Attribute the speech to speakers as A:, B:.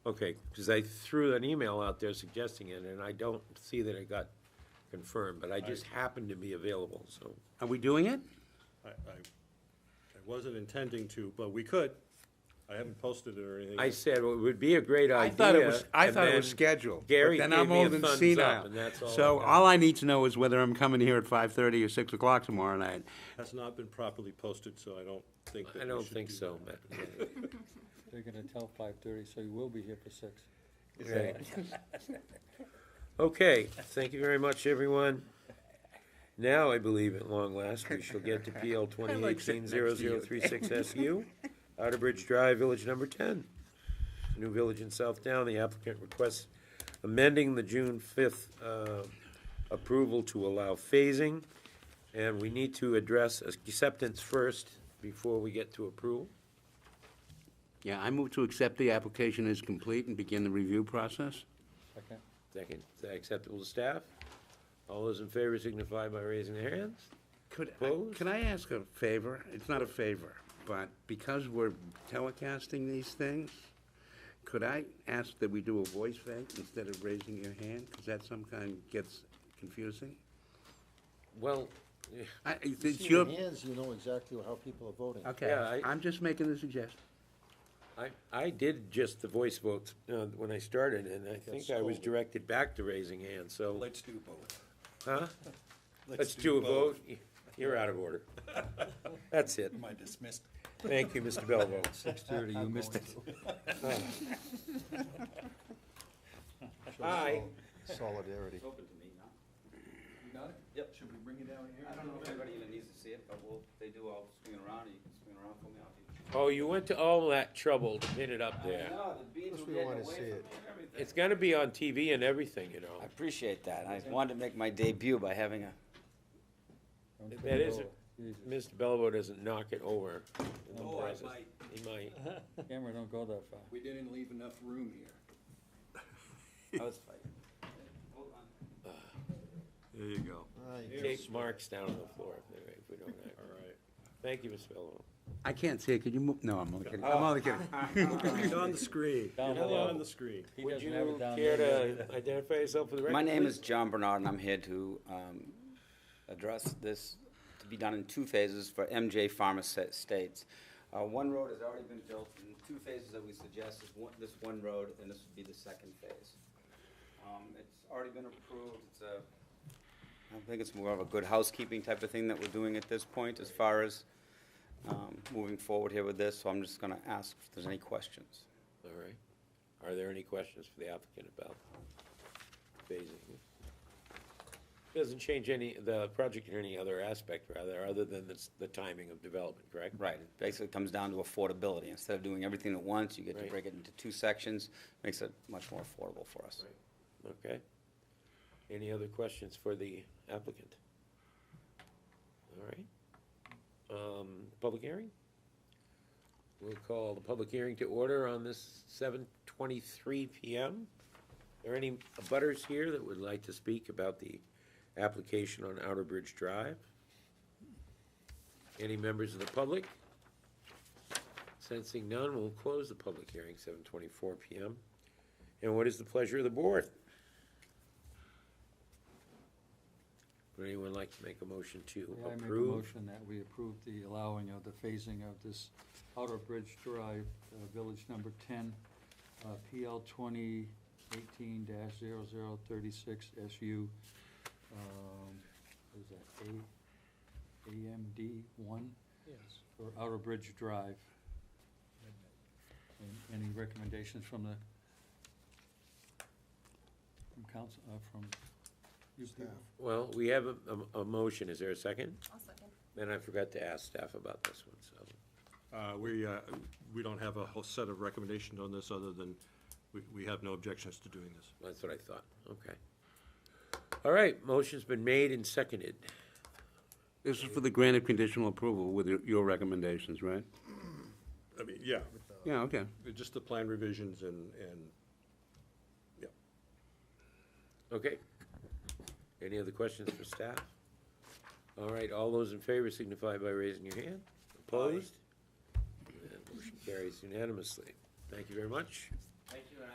A: Okay, because I threw an email out there suggesting it, and I don't see that it got confirmed, but I just happened to be available, so.
B: Are we doing it?
C: I, I, I wasn't intending to, but we could. I haven't posted it or anything.
A: I said, well, it would be a great idea.
B: I thought it was, I
A: and
B: thought it was
A: then
B: scheduled. but
A: Gary
B: then
A: gave
B: I'm
A: me a
B: old and
A: thumbs up,
B: senile.
A: and that's all
B: So
A: I got.
B: all I need to know is whether I'm coming here at five-thirty or six o'clock tomorrow night.
C: Has not been properly posted, so I don't think that we should
A: I don't think
C: do
A: so,
C: that.
A: but,
D: They're gonna tell five thirty, so you will be here for six.
A: okay. Okay, thank you very much, everyone. Now, I believe at long last, we shall get to PL twenty eighteen zero zero three six SU, Outer Bridge Drive, Village Number Ten. New Village in South Down, the applicant requests amending the June fifth, uh, approval to allow phasing. And we need to address acceptance first before we get to approval.
B: Yeah, I move to accept the application as complete and begin the review process.
D: Second.
A: Second, is that acceptable to staff? All those in favor signify by raising their hands.
B: Could, I-
A: Opposed?
B: could I ask a favor? It's not a favor, but because we're telecasting these things, could I ask that we do a voice vote instead of raising your hand? Because that sometimes gets confusing.
A: Well,
B: I,
E: You
B: it's
E: see
B: your,
E: the hands, you know exactly how people are voting.
A: Yeah, I-
B: okay, I'm just making the suggestion.
A: I, I did just the voice votes uh, when I started, and I think I was directed back to raising hands, so,
F: Let's do both.
A: huh? Let's do a vote. You're out of order. That's it.
F: Am I dismissed?
A: Thank you, Mr. Bellvoe.
D: Six thirty, you missed it.
A: Aye.
E: Solidarity.
G: Open to me, huh? You got it? Yep. Should we bring it down here? I don't know if everybody even needs to see it, but we'll, they do all swing it around, and you can swing around for me, I'll do.
A: Oh, you went to all that trouble to pin it up there.
G: I know, the beans
E: Plus
G: were
E: we
G: getting
E: wanna
G: away
E: see
G: from me
E: it.
G: and everything.
A: It's gonna be on TV and everything, you know.
G: I appreciate that, I wanted to make my debut by having a,
A: That is, Mr. Bellvoe doesn't knock it over in the
F: Oh, I
A: process.
F: might.
A: He might.
D: Camera don't go that far.
F: We didn't leave enough room here.
G: I was fighting. Hold on.
F: There you go.
A: Take marks down on the floor if they- if we don't act. All right. Thank you, Mr. Bellvoe.
B: I can't see it, could you move, no, I'm only kidding, I'm only kidding.
C: It's on the screen.
D: Down
C: It's
D: below.
C: on the screen.
D: He
A: Would
D: doesn't
A: you
D: have it down
A: care
D: there.
A: to identify yourself for the record?
G: My name is
A: please?
G: John Bernard, and I'm here to um, address this, to be done in two phases for MJ Pharma Sa- Estates. Uh, One road has already been built, and two phases that we suggest is one- this one road, and this would be the second phase. Um, It's already been approved, it's a, I think it's more of a good housekeeping type of thing that we're doing at this point as far as um, moving forward here with this, so I'm just going to ask if there's any questions.
A: All right. Are there any questions for the applicant about phasing? Doesn't change any, the project in any other aspect, rather, other than the, the timing of development, correct?
G: Right, it basically comes down to affordability. Instead of doing everything at once, you get to
A: Right.
G: break it into two sections, makes it much more affordable for us.
A: Okay. Any other questions for the applicant? All right. Um, Public hearing? We'll call the public hearing to order on this seven twenty-three PM. Are there any butters here that would like to speak about the application on Outer Bridge Drive? Any members of the public? Sensing none, we'll close the public hearing, seven twenty-four PM. And what is the pleasure of the board? Would anyone like to make a motion to
D: Yeah, I make a
A: approve?
D: motion that we approve the allowing of the phasing of this Outer Bridge Drive, uh, Village Number Ten, uh, PL twenty eighteen 36 SU. um, What is that, A, AMD one? Yes. For Outer Bridge Drive. And Any recommendations from the, from council, uh, from you people?
A: Well, we have a, a- a motion, is there a second?
H: I'll second.
A: And I forgot to ask staff about this one, so.
C: Uh, we, uh, we don't have a whole set of recommendations on this, other than we, we have no objections to doing this.
A: That's what I thought, okay. All right, motion's been made and seconded.
B: This is for the grant of conditional approval with your- your recommendations, right?
C: I mean, yeah,
B: Yeah, okay.
C: just the plan revisions and, and, yeah.
A: Okay. Any other questions for staff? All right, all those in favor signify by raising your hand. Opposed? And Motion carries unanimously. Thank you very much.
G: Thank you,